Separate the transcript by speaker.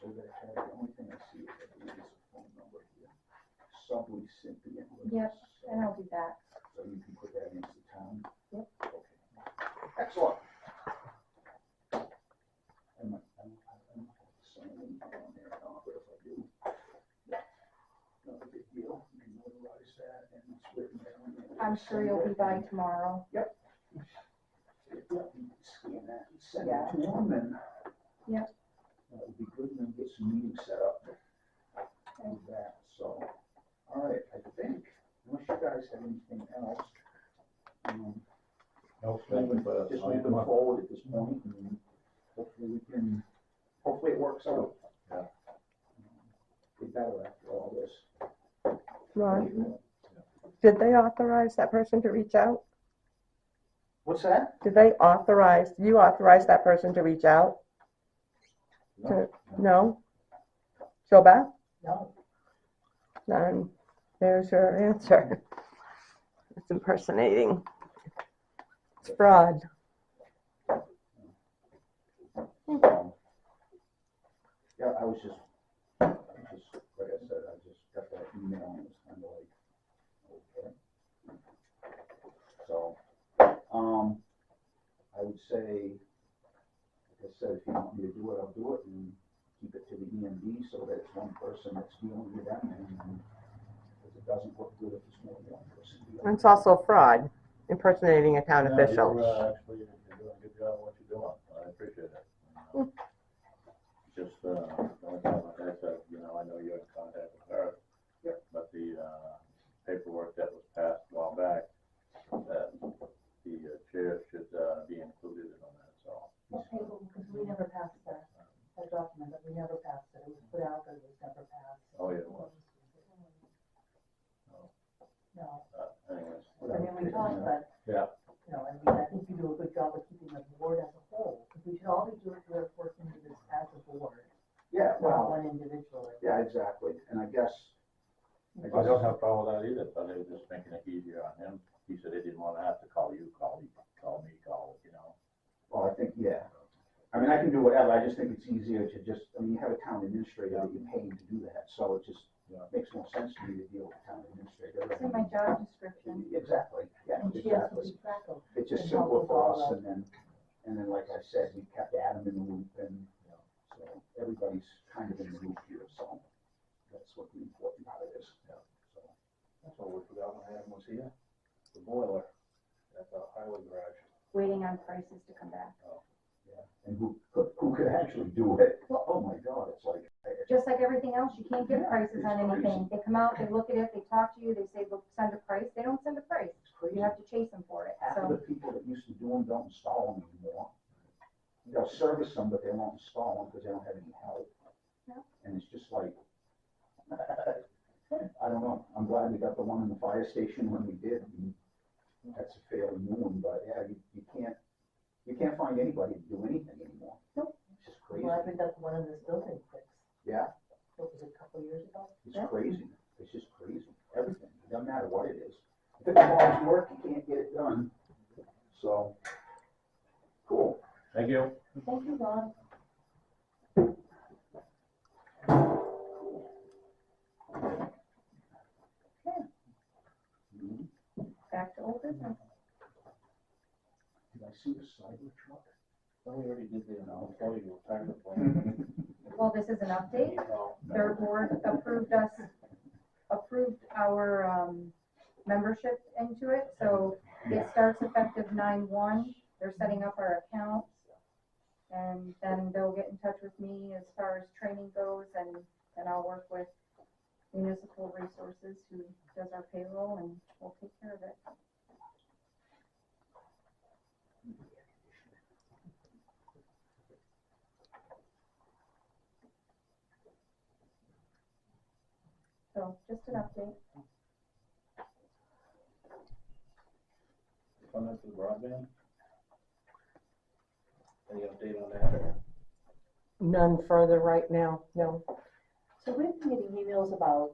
Speaker 1: So they have, the only thing I see is I believe is a phone number here. Subway Cynthia.
Speaker 2: Yep, and I'll do that.
Speaker 1: So you can put that into town?
Speaker 2: Yep.
Speaker 1: Okay. Excellent. I might, I might, I might have to sign in on there, I don't know, but if I do. Not a big deal, you can notarize that and it's written down. and
Speaker 2: I'm sure you'll be by tomorrow.
Speaker 1: Yep, you can Scan that and send it
Speaker 2: Yeah.
Speaker 1: to them and.
Speaker 2: Yep.
Speaker 1: That would be good, and then get some meetings set up. And that, so, all right, I think, unless you guys have anything else. um,
Speaker 3: No,
Speaker 1: Just moving
Speaker 3: thank you, but uh, I'll sign them up.
Speaker 1: forward at this point, and hopefully we can, hopefully it works out.
Speaker 3: Yeah.
Speaker 1: Be better after all this.
Speaker 4: Ron, did they authorize that person to reach out?
Speaker 1: What's that?
Speaker 4: Did they authorize, you authorized that person to reach out?
Speaker 3: No.
Speaker 4: No? Joe Beth?
Speaker 1: No.
Speaker 4: Then there's your answer. It's impersonating. It's fraud.
Speaker 1: Yeah, Um, I was just, I just, like I said, I just got that email and it was kind of like, okay. So, um, I would say, like I said, if you want me to do it, I'll do it and keep it to the EMD so that it's one person that's dealing with them and if it doesn't look good, if it's more than one person. dealing.
Speaker 4: It's also fraud, impersonating a town
Speaker 3: No,
Speaker 4: official.
Speaker 3: you're, uh, Actually, you're doing a good job of what you're doing, I appreciate it. Just, uh, the only time, like I said, you know, I know you're in contact with her.
Speaker 1: Yep.
Speaker 3: But the, uh, paperwork that was passed a while back, that the uh, chair should, uh, be included in on that, so.
Speaker 5: Okay, because we never passed that, that document, but we never passed it, it was put out, but it was never passed.
Speaker 3: Oh, yeah, it was.
Speaker 5: No,
Speaker 3: Uh, anyways,
Speaker 5: I mean, we talked, but.
Speaker 3: Yeah.
Speaker 5: You know, I mean, I think you do a good job of keeping the board as a whole, because we should all be doing, we're working to this as a board,
Speaker 1: Yeah,
Speaker 5: not
Speaker 1: well,
Speaker 5: one individual.
Speaker 1: yeah, exactly. And I guess. I
Speaker 3: I don't
Speaker 1: guess-
Speaker 3: have a problem with that either, but they were just making it easier on him. He said he didn't wanna have to call you, call me, call me, call, you know.
Speaker 1: Well, I think, yeah. I mean, I can do whatever, I just think it's easier to just, I mean, you have a town administrator that you're paying to do that, so it just
Speaker 3: Yeah.
Speaker 1: makes more sense to me to deal with a town administrator.
Speaker 2: It's in my job description.
Speaker 1: Exactly, yeah,
Speaker 5: And she has to
Speaker 1: exactly.
Speaker 5: keep track of,
Speaker 1: It's just
Speaker 5: and help
Speaker 1: simpler
Speaker 5: us
Speaker 1: for
Speaker 5: all
Speaker 1: us,
Speaker 5: out.
Speaker 1: and then, and then, like I said, we kept Adam in the loop, and, you know, so everybody's kind of in the loop here, so that's what the important part is. So,
Speaker 3: That's what we forgot when Adam was here, the boiler at the highway garage.
Speaker 2: waiting on prices to come back.
Speaker 1: yeah. And who, who- who could actually do it?
Speaker 2: Well-
Speaker 1: Oh, my God, it's like,
Speaker 2: Just like everything else, you can't get prices on anything. They come out, they look at it, they talk to you, they say, look, send a price. They don't send a price.
Speaker 1: it's crazy.
Speaker 2: You have to chase them for it,
Speaker 1: half of the
Speaker 2: so.
Speaker 1: people that used to do them don't install them anymore. They'll service them, but they won't install them because they don't have any help.
Speaker 2: Yep.
Speaker 1: And it's just like, I don't know, I'm glad we got the one in the fire station when we did. and That's a fairly new one, but yeah, you, you can't, you can't find anybody to do anything anymore.
Speaker 2: Nope.
Speaker 1: It's just crazy,
Speaker 5: well, I think that's one of this building fix,
Speaker 1: yeah,
Speaker 5: what was it, a couple years ago?
Speaker 1: it's
Speaker 2: Yeah.
Speaker 1: crazy, it's just crazy, everything, It doesn't matter what it is. If it involves work, you can't get it done, so, cool.
Speaker 3: Thank you.
Speaker 5: Thank you, Ron.
Speaker 1: Mhm.
Speaker 2: Back to old business.
Speaker 1: Did I see the cyber truck?
Speaker 3: Well, we already did the, uh, employee retirement plan.
Speaker 1: Well,
Speaker 2: Well, this is an update.
Speaker 3: Oh, no.
Speaker 2: Their board approved us, approved our, um, membership into it, so it starts effective nine one. They're setting up our accounts. And then they'll get in touch with me as far as training goes and then I'll work with municipal resources who does our payroll and we'll take care of it. So just an update.
Speaker 3: Fun up to the broadband? Any update on that or?
Speaker 4: None further right now, no.
Speaker 5: So we've been getting emails about